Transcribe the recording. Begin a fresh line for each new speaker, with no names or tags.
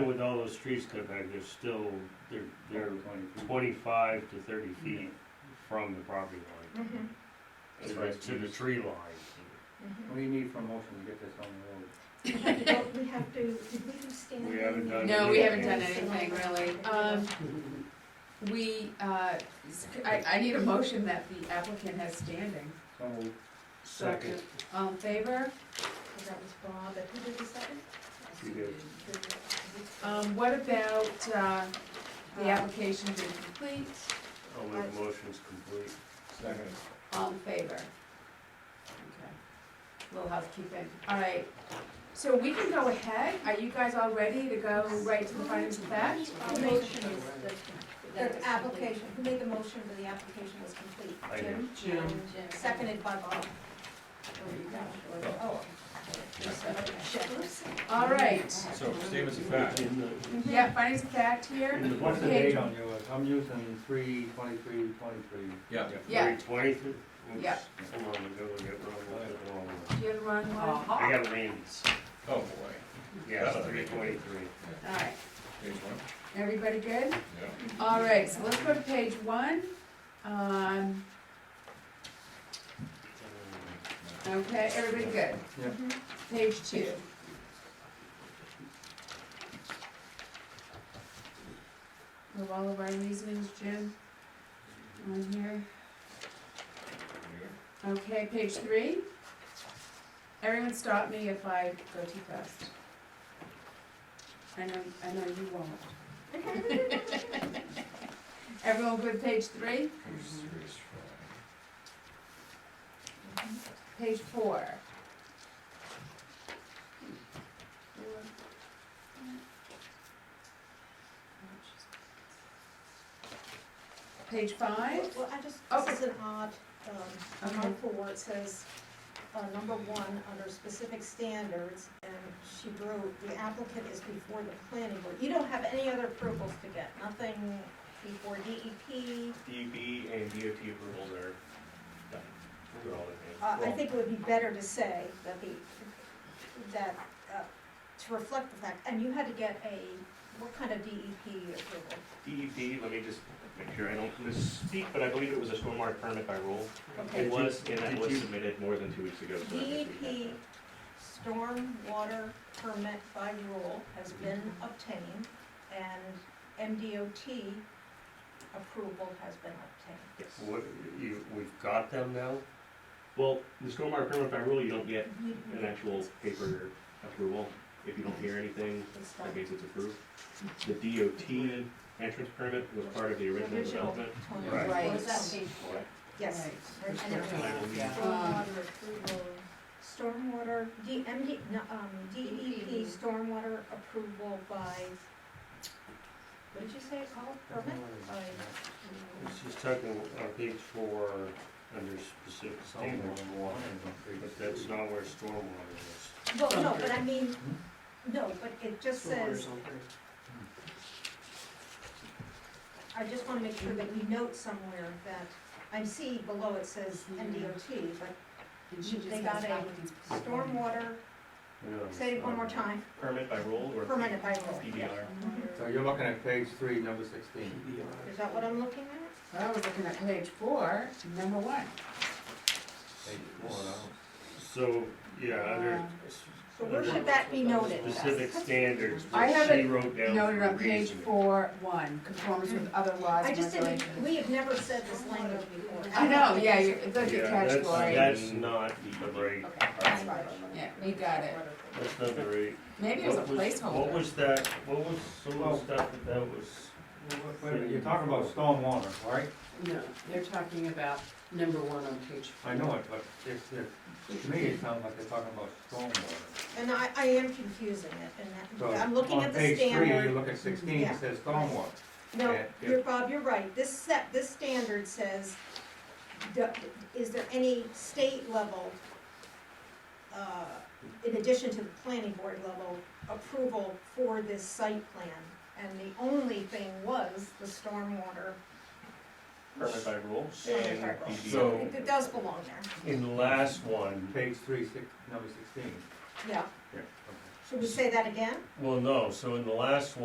With all those trees cut back, they're still, they're, they're twenty-five to thirty feet from the property line.
Mhm,
Mm-hmm.
To the, to the tree line.
mhm.
What do you need for a motion to get this on the road?
We have to go- we have to, did we do standing?
We haven't done
No, we haven't done
Yeah.
anything really. Um, we, uh, I, I need a motion that the applicant has standing.
So moved.
Second.
All in favor?
That was Bob, and who did the second?
You do.
Um, what about, uh, the application being complete?
I'll make the motions complete.
Second.
All in favor? Okay. Little housekeeping. All right. So we can go ahead. Are you guys all ready to go right to the findings of fact?
The motion is, the, the application, who made the motion that the application was complete?
I did.
Jim?
Jim.
Seconded by Bob.
There you go.
Oh.
All right.
So, statements of fact.
In the,
Yeah, findings of fact here.
in the book,
What's the
Okay.
date on yours? I'm using three twenty-three, twenty-three.
Yeah.
Yeah.
three twenty,
Yeah.
oops, hold on, I'm gonna get wrong, I got the wrong one.
Do you have a wrong one?
I got Randy's,
Oh, boy.
yes, three twenty-three.
All right.
Page one,
Everybody good?
yeah.
All right, so let's go to page one. Um, okay, everybody good?
Yeah.
Page two. With all of our reasonings, Jim, on here. Okay, page three. Everyone stop me if I go too fast. I know, I know you won't. Everyone good, with page three?
Page three is fine.
Page four. Page five,
Well, I just,
Oh.
this is an odd, um,
Okay.
article where it says, uh, number one, under specific standards, and she wrote, the applicant is before the planning board. You don't have any other approvals to get, nothing before E DEP.
DEP and DOT approvals are done. They're all in
Uh,
hand.
I think it would be better to say that the, that, uh, to reflect the fact, and you had to get a, what kind of DEP approval?
DEP, let me just make sure I don't misspeak, but I believe it was a stormwater permit by rule.
Okay.
It was, and that
did
was
you-
submitted more than two weeks ago. so I think we have
DEP E stormwater permit by rule has been obtained, and MDOT approval has been obtained.
that. Yes.
What, you, we've got them now?
Well, the stormwater permit by rule, you don't get
You-
an actual paper approval. If you don't hear anything,
it's done.
that means it's approved. The DOT entrance permit was part of the original
Original
development.
Tony,
Right.
what was that page for?
Right.
Yes.
Right.
And it was uh, Stormwater approval, stormwater, D, MD, no, um, DEP stormwater approval by, what did you say it called, permit? By-
She's talking on page four, under specific
Somewhere.
standards, but that's not where stormwater is.
Well, no, but I mean, no, but it just says, I just wanna make sure that we note somewhere that, I see below it says MDOT, but
and she just
They
has
got a
applicants.
stormwater,
Yeah.
say it one more time,
Permit by rule or
permanent by rule.
PBR.
So you're looking at page three, number sixteen.
Is that what I'm looking at?
Well, we're looking at page four, number one.
Page four, now.
So, yeah, under.
Uh,
So where should that be noted?
Specific standards,
I
what
have
she
it
wrote down
Noted
for
on page
reasoning.
four, one, conformance with other laws
I
and
just
regulations.
didn't, we have never said this language before.
I know, yeah, you're, it's a good
Yeah, that's,
category.
that's not the right,
Okay, that's fine.
Yeah, we got it.
that's not the right.
Maybe it was a
What What
placeholder.
was that, what was some of the stuff that that was?
Wait a minute, you're talking about stormwater, right?
No, they're talking about number one on page four.
I know it, but it's, it's, to me, it sounds like they're talking about stormwater.
And I, I am confusing it, and
So
that- I'm looking at the
On page three, you
standard.
look at sixteen,
Yeah.
it says stormwater.
No,
Yeah, yeah.
you're, Bob, you're right, this set, this standard says, d- is there any state level, uh, in addition to the planning board level, approval for this site plan? And the only thing was the stormwater,
Permit by rule
Permit by
and
rule.
PBR.
So-
it it does belong there,
In the last one,
Page three, six, number sixteen.
yeah.
Yeah. Okay.
Should we say that again?
Well, no, so in the last one.